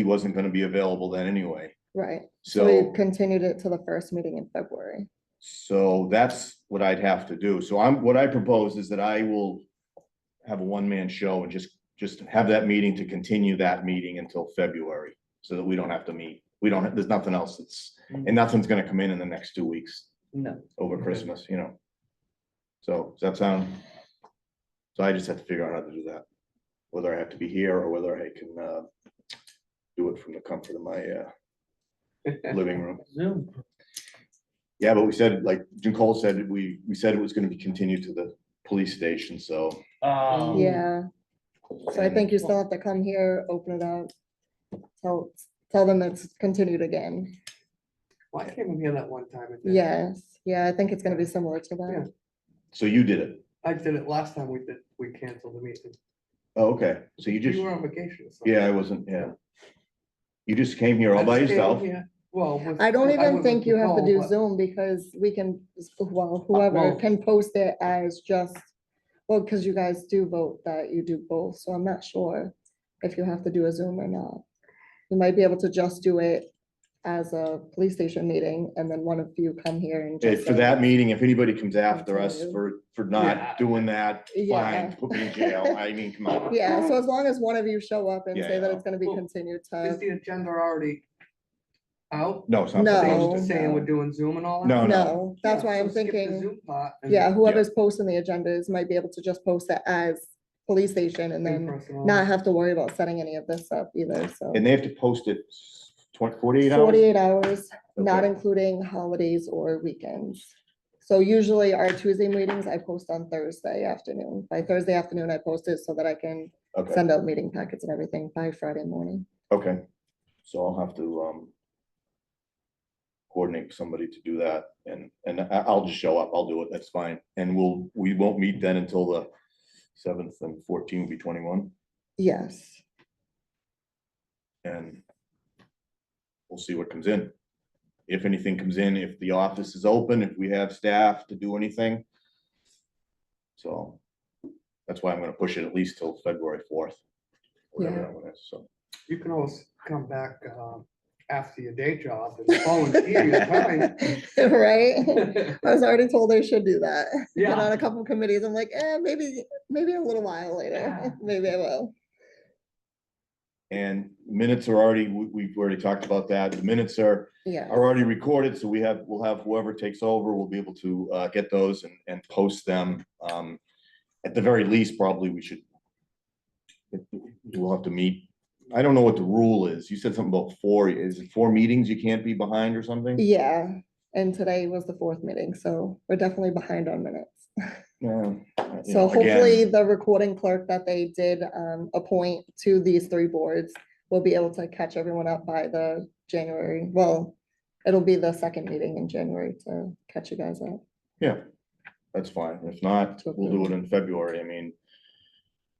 he wasn't gonna be available then anyway. Right, so So, we continued it to the first meeting in February. so that's what I'd have to do. So I'm, what I propose is that I will have a one-man show and just, just have that meeting to continue that meeting until February, so that we don't have to meet. We don't, there's nothing else that's, and nothing's gonna come in in the next two weeks Mm. No. over Okay. Christmas, you know? So, does that sound? So I just have to figure out how to do that, whether I have to be here or whether I can, uh, do it from the comfort of my, uh, living room. Zoom. Yeah, but we said, like Nicole said, we, we said it was gonna be continued to the police station, so. Um, Yeah, so I and- think you still have to come here, open it up. Tell, tell them it's continued again. Well, I came in here that one time. and did it. Yes, yeah, I think it's gonna be similar to Yeah. that. So you did it. I did it last time we did, we canceled the meeting. Oh, okay. So you just, You were on vacation. so- yeah, I wasn't, yeah. You just came here all I by just came yourself. here, Well. with- I don't was even think with you have to Nicole, do but- Zoom because we can, well, whoever well- can post it as just, well, because you guys do vote that you do both, so I'm not sure if you have to do a Zoom or not. You might be able to just do it as a police station meeting and then one of you come here and. Eh, just For say- that meeting, if anybody comes after us Continue. for, for Yeah. not doing that, Yeah. fine, put me in jail. I mean, come on. Yeah, so as long as one of you show up and say that Yeah. it's gonna be Well, continued Is to, the agenda already out? No, it's not. the No. same. Saying saying we're doing Zoom and all that? Oh, No, no, that's Yeah, why so I'm skip the thinking, Zoom part and yeah, whoever's posting the agendas might be able to just post it as police station and then in-person only. not have to worry about setting any of this up either, so. Mm. And they have to post it twenty, forty-eight hours? Forty-eight hours, not Okay. including holidays or weekends. So usually our Tuesday meetings, I post on Thursday afternoon. By Thursday afternoon, I post it so that I can Okay, send out meeting packets and everything by Friday morning. okay. So I'll have to, um, coordinate with somebody to do that and, and I, I'll just show up. I'll do it. That's fine. And we'll, we won't meet then until the seventh and fourteen will be twenty-one Yes. and we'll see what comes in. If anything comes in, if the office is open, if we have staff to do anything. So that's why I'm gonna push it at least till February fourth. Whatever Yeah. that one is, so. You can always come back, um, after your day job and Oh, volunteer your time. Right? I was already told I should do that. Been Yeah. on a couple committees, I'm like, eh, maybe, maybe a little while Yeah. later, maybe I will. And minutes are already, we, we've already talked about that. The minutes are, Yeah. are already recorded, so we have, we'll have whoever takes over, we'll be able to, uh, get those and, and post them. Um, at the very least, probably we should. We'll have to meet. I don't know what the rule is. You said something about four, is it four meetings you can't be behind or something? Yeah, and today was the fourth meeting, so we're definitely behind on minutes. Yeah. uh, you So know, again, hopefully the recording clerk that they did um appoint to these three boards will be able to catch everyone up by the January, well, it'll be the second meeting in January to catch you guys up. Yeah, that's fine. If not, we'll do it in February. I mean,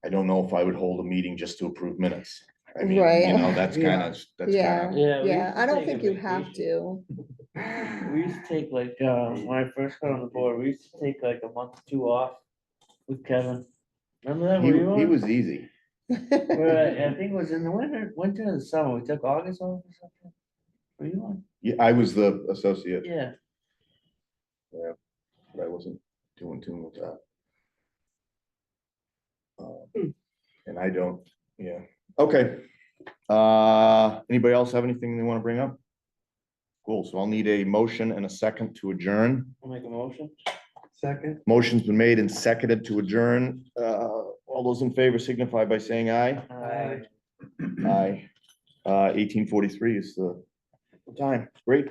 I don't know if I would hold a meeting just to approve minutes. I mean, Right. you know, that's kind of, that's Yeah. kind of, Yeah. we Yeah, used to I don't take a think you have vacation. to. We used to take like, uh, when I first got on the board, we used to take like a month or two off with Kevin. Remember that? Were you he, he on? was easy. Right, I think it was in the winter, winter and summer. We took August off or something. Were you on? Yeah, I was the associate. Yeah. but I wasn't doing tune with that. Hmm. Hmm. Um, And I don't, yeah, okay. Uh, anybody else have anything they want to bring up? Cool, so I'll need a motion and a second to adjourn. I'll make a motion. Second, Motion's been made and seconded to adjourn. Uh, all those in favor signify by saying aye. Aye. Aye. Uh, eighteen forty-three is the the time, great.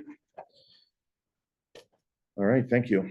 All right, thank you.